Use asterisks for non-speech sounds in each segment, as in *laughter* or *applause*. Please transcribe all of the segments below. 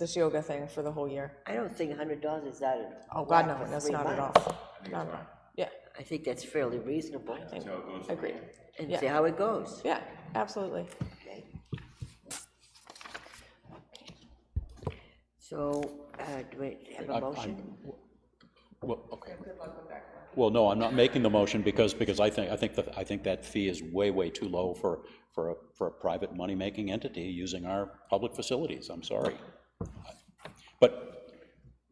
this yoga thing for the whole year. I don't think hundred dollars is that at Oh, all. God, no, that's not at all. Not at all. Yeah, I think that's fairly reasonable, agreed. and Yeah. see how it goes. Yeah, absolutely. Okay. So, uh, do we have a I'm- motion? I'm- Well, okay. Well, no, I'm not making the motion because, because I think, I think, that- I think that fee is way, way too low for, for, a for a private money-making entity using our public facilities, I'm sorry. But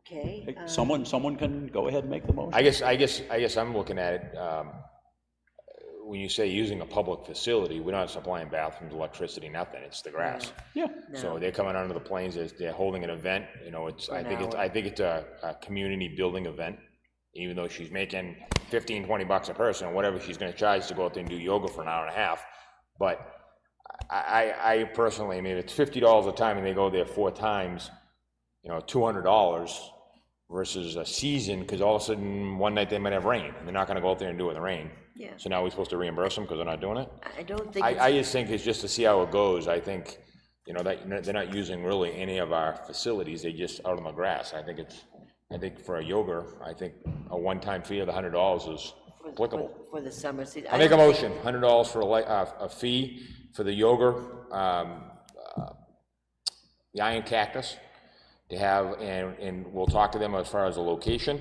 Okay, uh, someone, someone can go ahead and make the motion. I guess, I guess, I guess I'm looking at it, um, when you say using a public facility, we're not supplying bathrooms, electricity, nothing, it's the grass. Yeah, So they're coming onto the plains, they're, they're holding an event, you know, it's, I think it's, I think it's a, a community building event. Even though she's making 15, 20 bucks a person, whatever she's gonna charge to go out there and do yoga for an hour and a half. But I, I, I personally, I mean, if it's fifty dollars a time and they go there four times, you know, two hundred dollars versus a season, because all of a sudden, one night they might have rain, and they're not gonna go out there and do it in the rain. Yeah. So now we're supposed to reimburse them because they're not doing it? I don't think, I, it's- I just think it's just to see how it goes. I think, you know, that, they're not using really any of our facilities, they just out on the grass. I think it's, I think for a yoga, I think a one-time fee of the hundred dollars is applicable. for the summer season. I make a motion, hundred dollars for a li, uh, a fee for the yoga, um, uh, the Iron Cactus to have, and, and we'll talk to them as far as the location.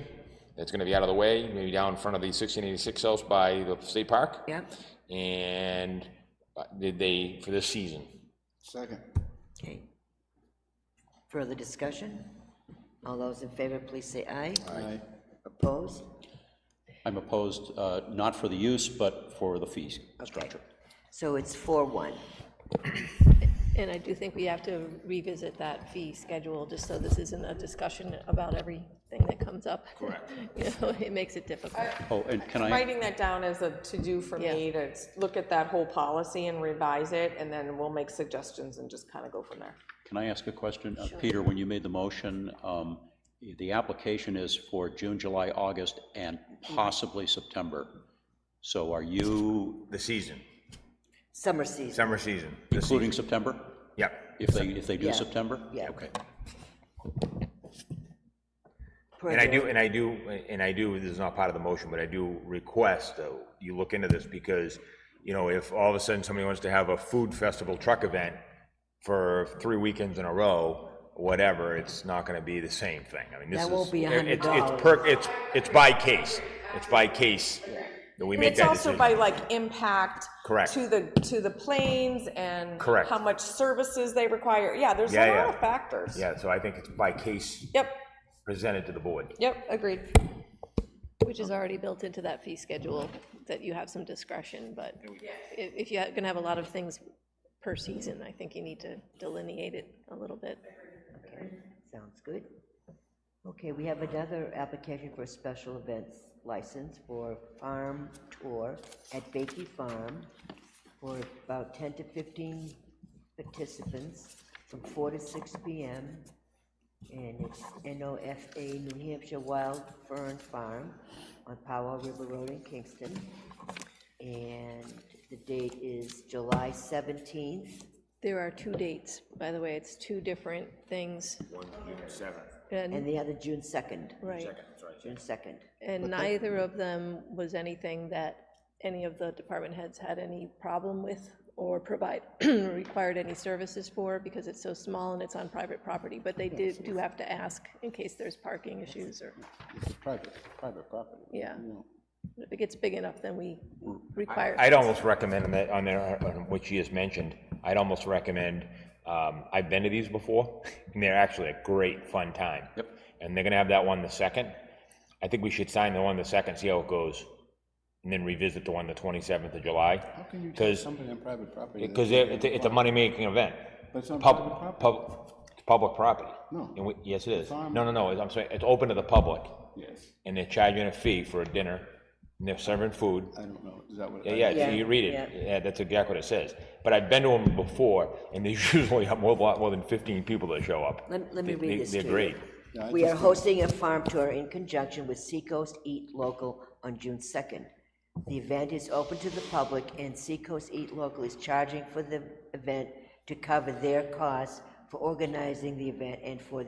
It's gonna be out of the way, maybe down in front of the sixteen eighty-six house by the state park. Yeah, And uh, did they, for this season? Second. okay. Further discussion? All those in favor, please say aye. Aye. Opposed? I'm opposed, uh, not for the use, but for the fees. Okay. So it's four one. And I do think we have to revisit that fee schedule, just so this isn't a discussion about everything that comes up. Correct. *laughs* You know, it makes it difficult. Oh, and can I? Writing that down as a to-do for me to s- look at that whole policy and revise it, and then we'll make suggestions and just kind of go from there. Can I ask a question? Uh, Peter, when you made the motion, um, the application is for June, July, August, and possibly September. So are you The season, Summer season, summer season. including September? Yep. If they, if they do Yeah. September? yeah. Okay. per And I the- do, and I do, and I do, this is not part of the motion, but I do request that you look into this because, you know, if all of a sudden somebody wants to have a food festival truck event for three weekends in a row, whatever, it's not gonna be the same thing. I mean, this is. That won't be a it- hundred it's- It's dollars. per, it's, it's by case. It's by case that we And make it's that also decision. by like impact. Correct. To the, to the planes and. Correct. How much services they require. Yeah, there's a Yeah, lot yeah. of factors. Yeah, so I think it's by case Yep, presented to the board. yep, agreed. Which is already built into that fee schedule, that you have some discretion, but if, if you're gonna have a lot of things per season, I think you need to delineate it a little bit. Okay, Sounds good. Okay, we have another application for a special events license for farm tour at Bakey Farm for about 10 to 15 participants from 4 to 6 p.m. And it's NOFA New Hampshire Wild Fern Farm on Powell River Road in Kingston. And the date is July 17th. There are two dates, by the way, it's two different things. One, seven. And And, the other, June 2nd. right. June 2nd. And neither of them was anything that any of the department heads had any problem with or provide, *clears throat* required any services for, because it's so small and it's on private property, but they did, do have to ask in case there's parking issues or, It's private, private property. yeah. If it gets big enough, then we require. I'd almost recommend that, on there, on what you just mentioned, I'd almost recommend, um, I've been to these before, *laughs* and they're actually a great, fun time. Yep. And they're gonna have that one the second. I think we should sign the one the second, see how it goes, and then revisit the one the twenty-seventh of July. How can you take Somebody on private property. that- Because it- it's, a- it's a money-making event. But it's on Pub- private property. pub- it's public property. No. And we- Yes, it is. on- No, no, no, I'm sorry, it's open to the public, Yes, and they're charging a fee for a dinner, and they're serving food. I don't know, is that what? Yeah, yeah, Yeah, you read it, yeah, that's exactly what it says. But I've been to them before, and there's *laughs* usually a more, lot more than fifteen people that show up. Let- let me They- read they- this to They're you. great. Yeah, I We just are hosting a farm tour in conjunction with Seacoast Eat Local on June 2nd. The event is open to the public, and Seacoast Eat Local is charging for the event to cover their costs for organizing the event and for the